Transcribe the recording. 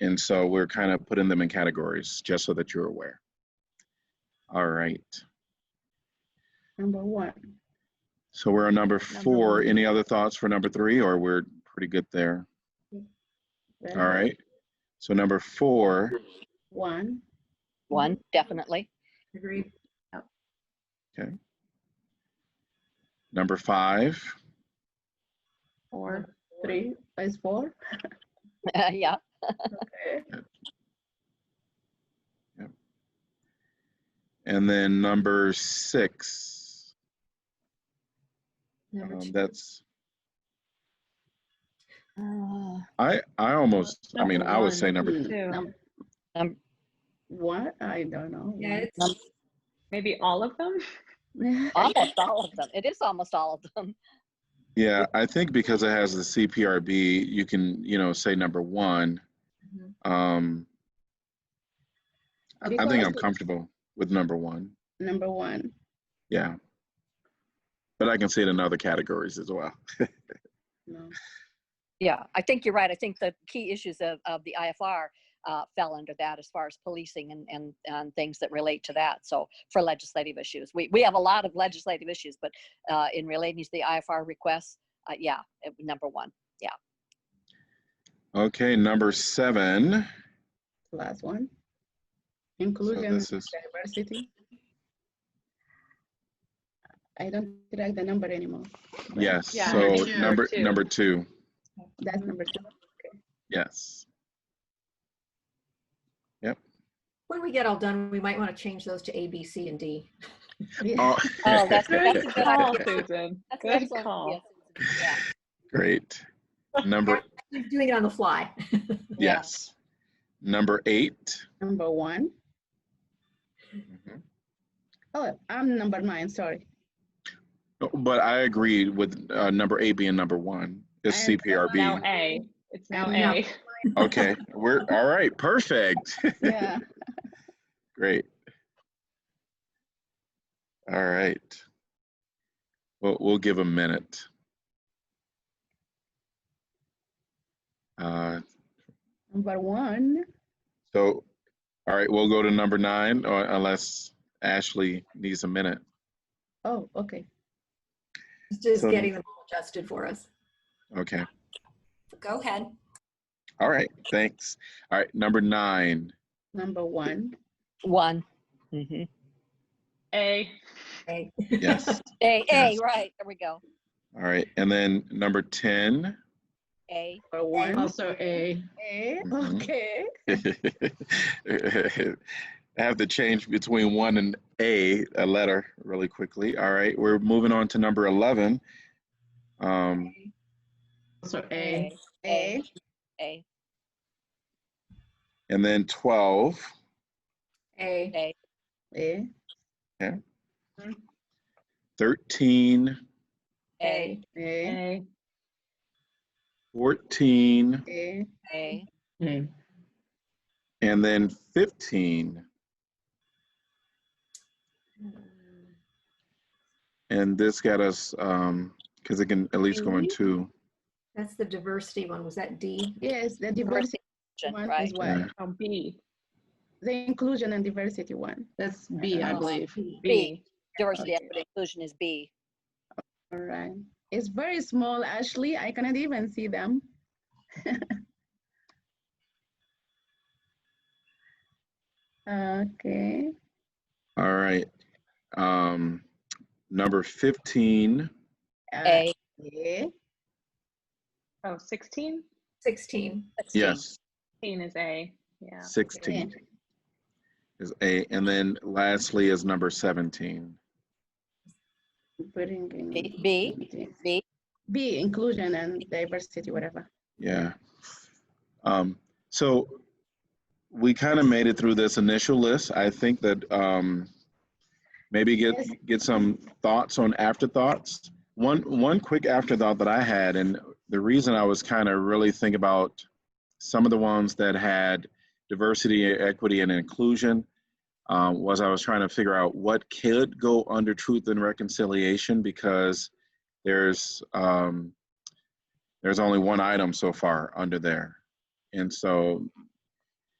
And so we're kind of putting them in categories, just so that you're aware. All right, Number one. so we're on number four. one. Any other thoughts for number three, or we're pretty good there? All right, so number four, One. One, definitely. Agreed. number five, Or three is four. yeah. Okay. and then number six. Number Um, two. That's, Uh, Ah. I, I almost, I mean, I would say number Number Two. Num- um, What? I don't know. Yeah, Num- it's maybe all of them. almost all of them. It is almost all of them. Yeah, I think because it has the CPRB, you can, you know, say number one. Mhm. Um, I I think Mm-hmm. Because- I'm comfortable with number one, Number one. yeah. But I can see it in other categories as well. No. Yeah, I think you're right. I think the key issues of, of the IFR uh, fell under that as far as policing and, and, and things that relate to that. So for legislative issues, we, we have a lot of legislative issues, but uh, in relating to the IFR requests, uh, yeah, it- number one. Okay, number seven. Last one. So Inclusion, this is, diversity. I don't like the number anymore. but yes, Yeah, so number two. number, Two. number two, That's number two. yes. When we get all done, we might want to change those to A, B, C, and D. Yeah. Oh, Oh, that's, that's a good Call, idea. Susan. That's an Good excellent call. idea, Susan. Yeah. Great. Number, We're Doing it on the fly. Yeah. yes. Number eight. Number one. Oh, I'm number nine, sorry. No, But I agree with uh, number eight being number one. It's I am so Now CPRB. A. It's now Yeah. A. Okay, we're, all right, perfect. Yeah. Great. All right. Well, we'll give a minute. Uh, Number one. So, all right, we'll go to number nine or unless Ashley needs a minute. Oh, okay. It's Just So- getting them all adjusted for us. Okay, Go ahead. all right, thanks. All right, number nine. Number one. One. Mhm. A. Okay. Yes, A, A, Yes. right, there we go. all right. And then number 10. A, Number one. Also A. Eh, Mhm. Okay. I have to change between one and a a letter really quickly. All right, we're moving on to number eleven. Um, Also A. A, Eh, A, and then twelve, A, A, eh, thirteen, A, eh, A. fourteen, eh, A, A. and then fifteen. Hmm. And this got us um because it can at least go in two. that's the diversity one. Was that D? Yes, the Diversity diversity one right? as well. Oh, B. The inclusion and diversity one. That's B, I Oh. believe. B. Diversity, Okay. equity, inclusion is B. All right. It's very small, Ashley. I cannot even see them. Okay. All right. Um, number fifteen. uh, A. eh, Oh, 16? 16. Yes. 16 is A. Yeah. 16 is A. And then lastly is number 17. bring in B- B. something. B. B, inclusion and diversity, whatever. Yeah. Um, so we kind of made it through this initial list. I think that um, maybe get Yes. get some thoughts on afterthoughts. One one quick afterthought that I had, and the reason I was kind of really thinking about some of the ones that had diversity, equity, and inclusion um, was I was trying to figure out what could go under truth and reconciliation because there's um, there's only one item so far under there. And so